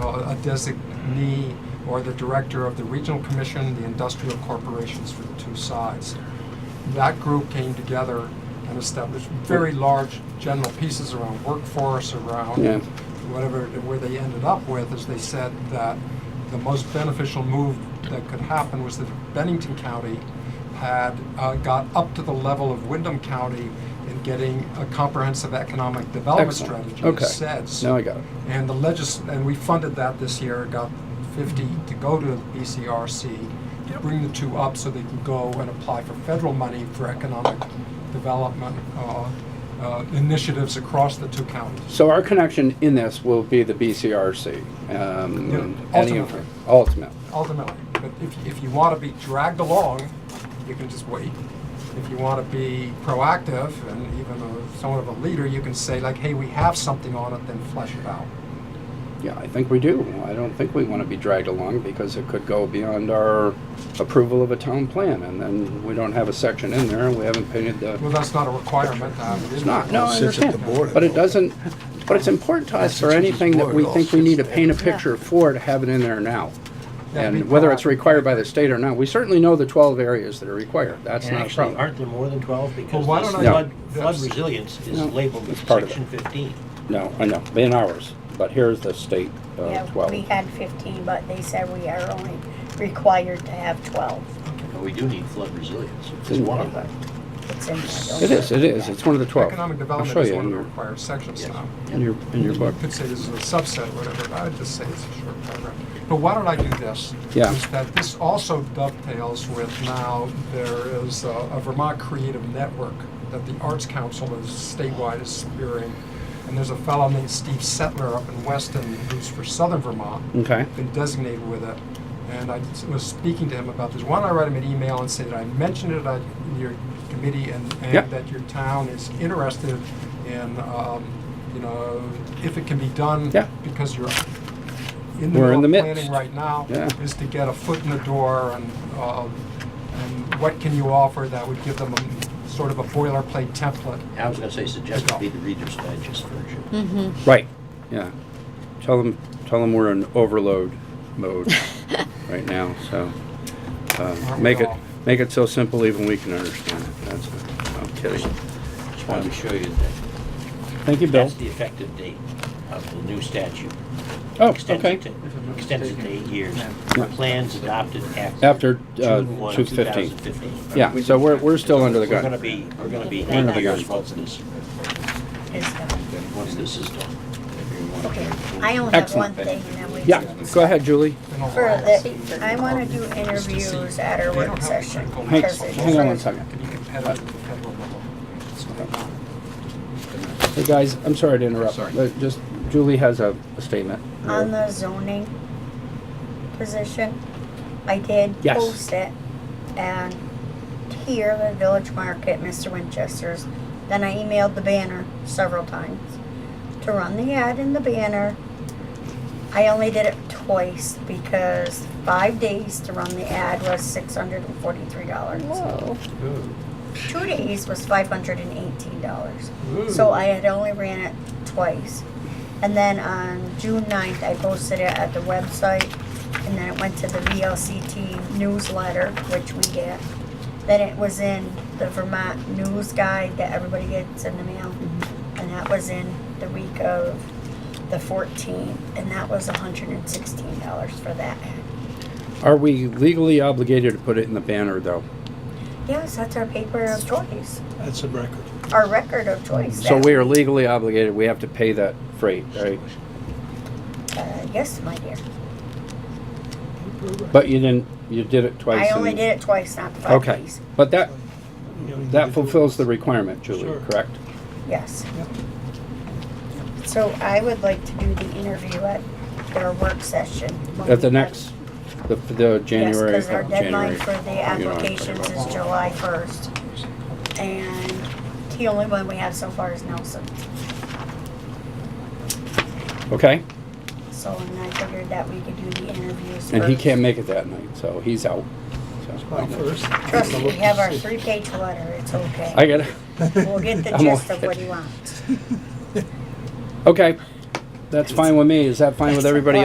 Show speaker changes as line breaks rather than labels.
uh, a designee or the director of the Regional Commission, the industrial corporations for the two sides. That group came together and established very large general pieces around workforce, around
Yeah.
whatever, where they ended up with is they said that the most beneficial move that could happen was that Bennington County had uh, got up to the level of Wyndham County in getting a comprehensive economic development
Excellent.
strategy,
Okay.
as SEDS.
Now I got it.
And the legis, and we funded that this year, got 50 to go to E BCRC, to bring the two up so they can go and apply for federal money for economic development uh, uh, initiatives across the two counties.
So our connection in this will be the BCRC. um,
Yeah,
and any of-
ultimately.
Ultimate.
Ultimately, but if, if you want to be dragged along, you can just wait. If you want to be proactive and even a- somewhat of a leader, you can say like, hey, we have something on it, then flesh it out.
Yeah, I think we do. I don't think we want to be dragged along because it could go beyond our approval of a town plan. And then we don't have a section in there and we haven't painted the,
Well, that's not a requirement. um, it is-
it's not, no, I
Sits at the
understand.
board,
But it
though.
doesn't, but it's important to us for
Sits at the
anything that
board,
we
all
think we
sits
need to
there.
paint a picture for to have it in there now.
Yeah, be
And whether it's
proactive.
required by the state or not, we certainly know the 12 areas that are required. That's
And
not a
actually,
problem.
aren't there more than 12? Because
why
this
don't I-
flood,
Yeah.
flood resilience is
No,
labeled in
it's part of
section 15.
No, I know, in ours, but here's the state uh,
Yeah, we
12.
had fifteen, but they said we are only required to have twelve.
But we do need flood resilience.
It's one of them.
It's in there.
It is, it is, it's one of the 12.
Economic
I'll
development
show
is
you
one
in
of the
your,
required sections
Yes.
now.
in your, in your book.
You could say this is a subset, or whatever, but I would just say it's a short paragraph. But why don't I do this?
Yeah.
Is that this also dovetails with now, there is a a Vermont Creative Network that the Arts Council is statewide is spearing. And there's a fellow named Steve Settler up in Weston who's for Southern Vermont
Okay,
been designated with it. And I was speaking to him about this. Why don't I write him an email and say that I mentioned it at your committee and,
Yep.
and that your town is interested in, um, you know, if it can be done.
Yeah.
Because you're in the
We're
middle
in
of
the
planning
midst.
right now.
Yeah.
Is to get a foot in the door and, uh, and what can you offer that would give them a sort of a boilerplate template?
I was gonna say, suggest it be the Reader's Digest
Hmm.
version.
right, yeah. Tell them, tell them we're in overload mode right now, so. uh,
Aren't we
Make it,
all?
make it so simple even we can understand it, that's, it. I'm kidding.
Just wanted to show you that
Thank you, Bill.
that's the effective date of the new statute.
Oh,
Extends
okay.
it to- Extends it to eight years. Plans adopted after.
After uh,
June 1,
215.
2015.
Yeah, so we're, we're still under the
We're
gun.
gonna be, we're gonna be
Under
eight
the
years
gun.
once this,
It's done.
once this is done.
Okay, I only have one
Excellent.
thing and then we.
Yeah, go ahead, Julie.
in a
For
while?
the, I wanna do interviews at our
They don't
work
have
session.
critical
Hey,
because it's
hang on one
like-
second.
To be competitive at the federal level.
Hey, guys, I'm sorry to interrupt.
Sorry.
but Just, Julie has a a statement.
On the zoning position, I did
Yes.
post it. And here, the Village Market, Mr. Winchester's, then I emailed the banner several times. To run the ad in the banner, I only did it twice because five days to run the ad was six hundred and forty-three dollars. Two days was five hundred and eighteen dollars. So I had only ran it twice. And then on June 9th, I posted it at the website, and then it went to the VLCT newsletter, which we get. Then it was in the Vermont News Guide that everybody gets in the mail,
Mm-hmm.
and that was in the week of the 14th, and that was $116 for that.
Are we legally obligated to put it in the banner, though?
Yes, that's our paper of choice,
That's a record.
our record of choice.
So
that-
we are legally obligated, we have to pay that freight, right?
Uh, yes, my dear.
But you didn't, you did it twice.
I only
and-
did it twice, not the five
Okay,
days.
but that,
You know,
that fulfills the requirement, Julie,
Sure.
correct?
Yes. So I would like to do the interview at their work session. when
At the
we have-
next, the, the
Yes,
January. uh,
because our
January-
deadline for the
you know,
applications is July first. And the only one we have so far is Nelson.
Okay,
So and I figured that we could do the interviews
and he
first.
can't make it that night, so he's out. So,
Like first.
Trust me, we have our three-page letter, it's
I
okay.
get it.
We'll get the
I'm
gist
all-
of what he wants.
Okay, that's fine with me. Is that fine with everybody